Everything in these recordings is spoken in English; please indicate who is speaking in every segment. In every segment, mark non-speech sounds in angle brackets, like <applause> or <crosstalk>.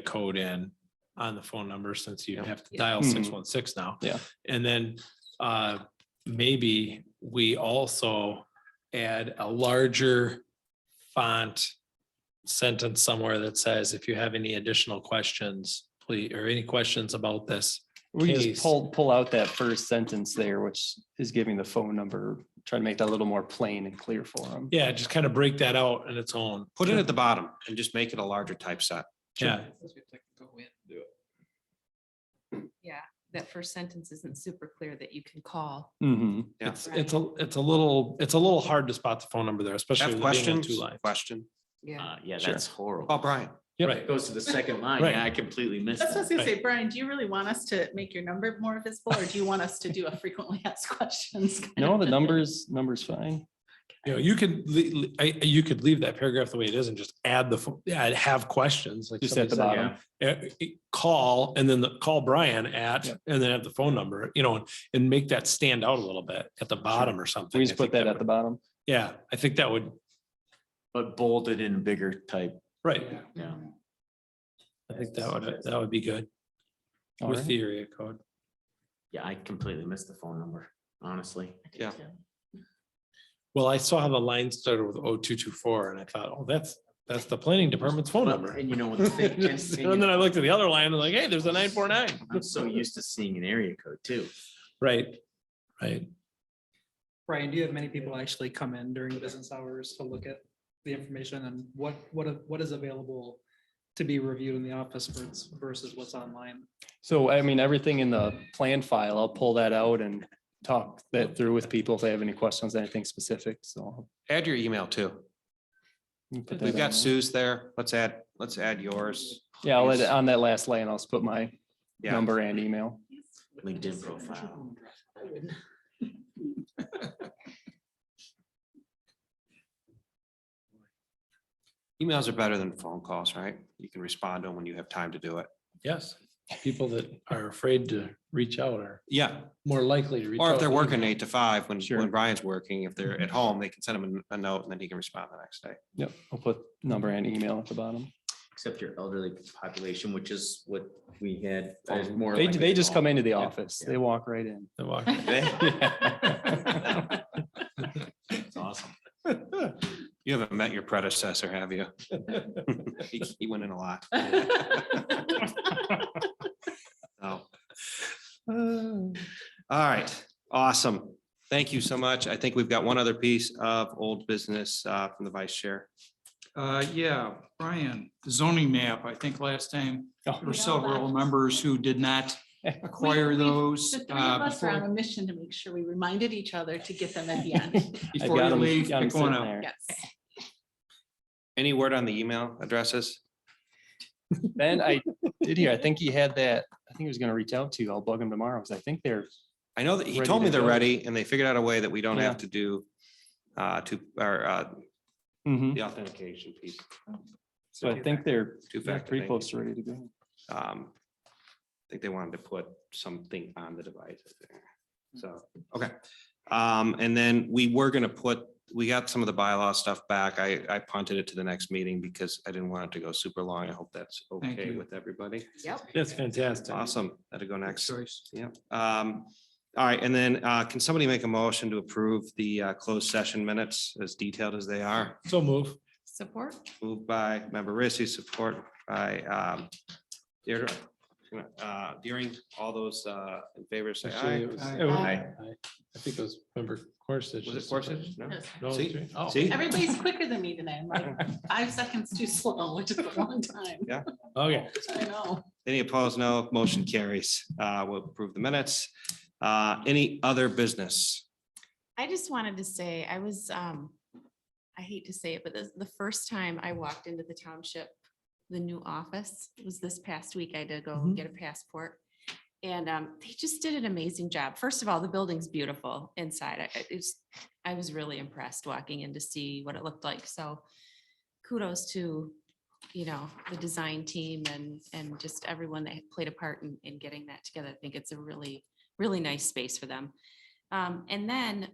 Speaker 1: code in on the phone number since you
Speaker 2: Yeah.
Speaker 1: have to
Speaker 3: Yeah.
Speaker 1: dial
Speaker 4: Mhm.
Speaker 1: six one six now.
Speaker 2: Yeah.
Speaker 1: And then uh maybe we also add a larger font sentence somewhere that says, if you have any additional questions, please, or any questions about this.
Speaker 2: We
Speaker 1: case.
Speaker 2: just pull, pull out that first sentence there, which is giving the phone number, try to make that a little more plain and clear for them.
Speaker 1: Yeah, just kind of break that out on its own.
Speaker 4: Put it at the bottom and just make it a larger type set.
Speaker 1: Yeah,
Speaker 3: Yeah, that first sentence isn't super clear that you can call.
Speaker 2: hmm
Speaker 4: Yeah.
Speaker 1: it's, it's a, it's a little, it's a little hard to spot the phone number there, especially.
Speaker 4: Have
Speaker 1: with it being on
Speaker 4: questions?
Speaker 1: two lines.
Speaker 4: Question.
Speaker 3: Yeah.
Speaker 5: Uh, yeah,
Speaker 2: Sure.
Speaker 5: that's
Speaker 4: Oh,
Speaker 5: horrible.
Speaker 4: Brian,
Speaker 1: Yep.
Speaker 5: It Goes to the second line.
Speaker 1: Right.
Speaker 5: Yeah, I completely missed
Speaker 6: That's what I was
Speaker 5: that.
Speaker 6: gonna say, Brian, do you really want us to make your number more visible or do you want us to do a frequently <laughs> asked questions? kind
Speaker 2: No, the
Speaker 6: of-
Speaker 2: numbers, numbers fine.
Speaker 1: You know, you could, le- le- I- you could leave that paragraph the way it is and just add the, fo- yeah, I'd have questions. like
Speaker 2: Just at the
Speaker 1: somebody
Speaker 2: bottom.
Speaker 1: said, yeah, eh, eh, Call and then the, call Brian at,
Speaker 2: Yep.
Speaker 1: and then have the phone number, you know, and- and make that stand out a little bit at the bottom or something.
Speaker 2: We
Speaker 1: I
Speaker 2: just put
Speaker 1: think
Speaker 2: that at the
Speaker 1: would-
Speaker 2: bottom.
Speaker 1: Yeah, I think that would,
Speaker 5: But bolded in bigger type.
Speaker 1: right,
Speaker 5: Yeah.
Speaker 1: I think that would, that would be good
Speaker 2: All
Speaker 1: with
Speaker 2: right.
Speaker 1: the area code.
Speaker 5: Yeah, I completely missed the phone number, honestly.
Speaker 4: yeah.
Speaker 6: <laughs>
Speaker 1: Well, I saw the line started with O two two four and I thought, oh, that's, that's the planning department's phone number.
Speaker 5: And you know what?
Speaker 1: <laughs>
Speaker 5: the
Speaker 2: <laughs>
Speaker 5: thing- and-
Speaker 1: Just-
Speaker 5: and
Speaker 1: And then
Speaker 5: you-
Speaker 1: I looked at the other line and like, hey, there's a nine four nine.
Speaker 5: I'm so used to seeing an area code too.
Speaker 1: Right, right.
Speaker 7: Brian, do you have many people actually come in during business hours to look at the information and what, what, what is available to be reviewed in the office versus- versus what's online?
Speaker 2: So I mean, everything in the plan file, I'll pull that out and talk that through with people if they have any questions, anything specific, so.
Speaker 4: Add your email too.
Speaker 2: we can put that
Speaker 4: We've
Speaker 2: on
Speaker 4: got
Speaker 2: there.
Speaker 4: Sue's there. Let's add, let's add yours.
Speaker 2: Yeah, I'll let, on that last line, I'll just put my
Speaker 4: Yeah.
Speaker 2: number and email.
Speaker 5: LinkedIn profile.
Speaker 4: Emails are better than phone calls, right? You can respond to them when you have time to do it.
Speaker 1: Yes, people that are afraid to reach out are
Speaker 4: Yeah.
Speaker 1: more likely to reach out.
Speaker 4: Or if they're
Speaker 1: to Mm-hmm.
Speaker 4: working
Speaker 1: email.
Speaker 4: eight to five, when,
Speaker 2: Sure.
Speaker 4: when Brian's working, if they're at home, they can send him a a note and then he can respond the next day.
Speaker 2: Yep, I'll put number and email at the bottom.
Speaker 5: Except your elderly population, which is what we had. is more
Speaker 2: They,
Speaker 5: like
Speaker 2: they
Speaker 5: a
Speaker 2: just
Speaker 5: call.
Speaker 2: come into the office.
Speaker 5: yeah.
Speaker 2: They walk right in.
Speaker 1: They
Speaker 4: <laughs>
Speaker 1: walk-
Speaker 5: That's awesome.
Speaker 4: You haven't met your predecessor,
Speaker 1: <laughs>
Speaker 4: have you? <laughs> He he went in a lot. Oh. All right, awesome. Thank you so much. I think we've got one other piece of old business uh, from the vice chair.
Speaker 8: Uh, yeah, Brian, the zoning map, I think last time,
Speaker 2: Oh.
Speaker 8: there were several members who did
Speaker 7: <laughs>
Speaker 8: not acquire
Speaker 6: We- we-
Speaker 8: those.
Speaker 6: The three
Speaker 8: uh,
Speaker 6: of us are on
Speaker 8: Before
Speaker 6: a mission to make sure we reminded each other to get them at the
Speaker 8: <laughs>
Speaker 6: end.
Speaker 2: I
Speaker 8: before
Speaker 2: got
Speaker 8: you
Speaker 2: 'em-
Speaker 8: leave,
Speaker 2: got 'em
Speaker 8: pick one
Speaker 2: sitting
Speaker 8: up.
Speaker 2: there.
Speaker 6: Yes.
Speaker 4: Any word on the email addresses?
Speaker 2: Then I did hear, I think he had that, I think he was gonna reach out to you. I'll bug him tomorrow, because I think they're,
Speaker 4: I know that he
Speaker 2: Ready
Speaker 4: told me
Speaker 2: to
Speaker 4: they're
Speaker 2: go.
Speaker 4: ready and they figured out a way that we don't have
Speaker 2: Yeah.
Speaker 4: to do uh, two, or uh,
Speaker 2: Mhm.
Speaker 4: the authentication piece.
Speaker 2: so I think they're
Speaker 4: Two
Speaker 2: they're
Speaker 4: factor.
Speaker 2: pretty close to ready to go.
Speaker 4: um, I think they wanted to put something on the device. I think.
Speaker 8: Hmm.
Speaker 4: So, okay. Um, and then we were gonna put, we got some of the bylaw stuff back. I, I punted it to the next meeting because I didn't want it to go super long. I hope that's
Speaker 8: Thank
Speaker 4: okay
Speaker 8: you.
Speaker 4: with everybody.
Speaker 3: Yep.
Speaker 1: That's fantastic.
Speaker 4: Awesome. That'll go next.
Speaker 8: Choice.
Speaker 4: Yeah. Um, all right. And then, uh, can somebody make a motion to approve the, uh, closed session minutes as detailed as they are?
Speaker 1: So move.
Speaker 3: Support?
Speaker 4: Moved by member Rissy, support by um, Deirdre. Uh, Deering, all those uh, in favor, say
Speaker 1: Actually,
Speaker 4: aye.
Speaker 1: it was-
Speaker 8: Aye.
Speaker 1: it was-
Speaker 5: Aye.
Speaker 1: aye. I think it was member Corsish.
Speaker 4: Was it Corsish? No.
Speaker 1: No, it was
Speaker 4: See?
Speaker 1: three. Oh.
Speaker 4: See?
Speaker 6: Everybody's quicker than me today. I'm like five seconds too slow, which is a long time.
Speaker 1: Okay.
Speaker 6: I know.
Speaker 4: Any opposed? No. Motion carries. Uh, We'll approve the minutes. Uh, Any other business?
Speaker 3: I just wanted to say, I was, um, I hate to say it, but the, the first time I walked into the township, the new office was this past week. I had to go
Speaker 1: Mhm.
Speaker 3: get a passport. And, um, they just did an amazing job. First of all, the building's beautiful inside. I- I- It's, I was really impressed walking in to see what it looked like. So kudos to, you know, the design team and, and just everyone that played a part in, in getting that together. I think it's a really, really nice space for them. Um, and then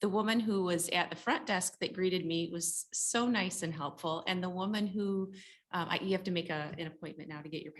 Speaker 3: the woman who was at the front desk that greeted me was so nice and helpful. And the woman who Um, I, you have to make a, an appointment now to get your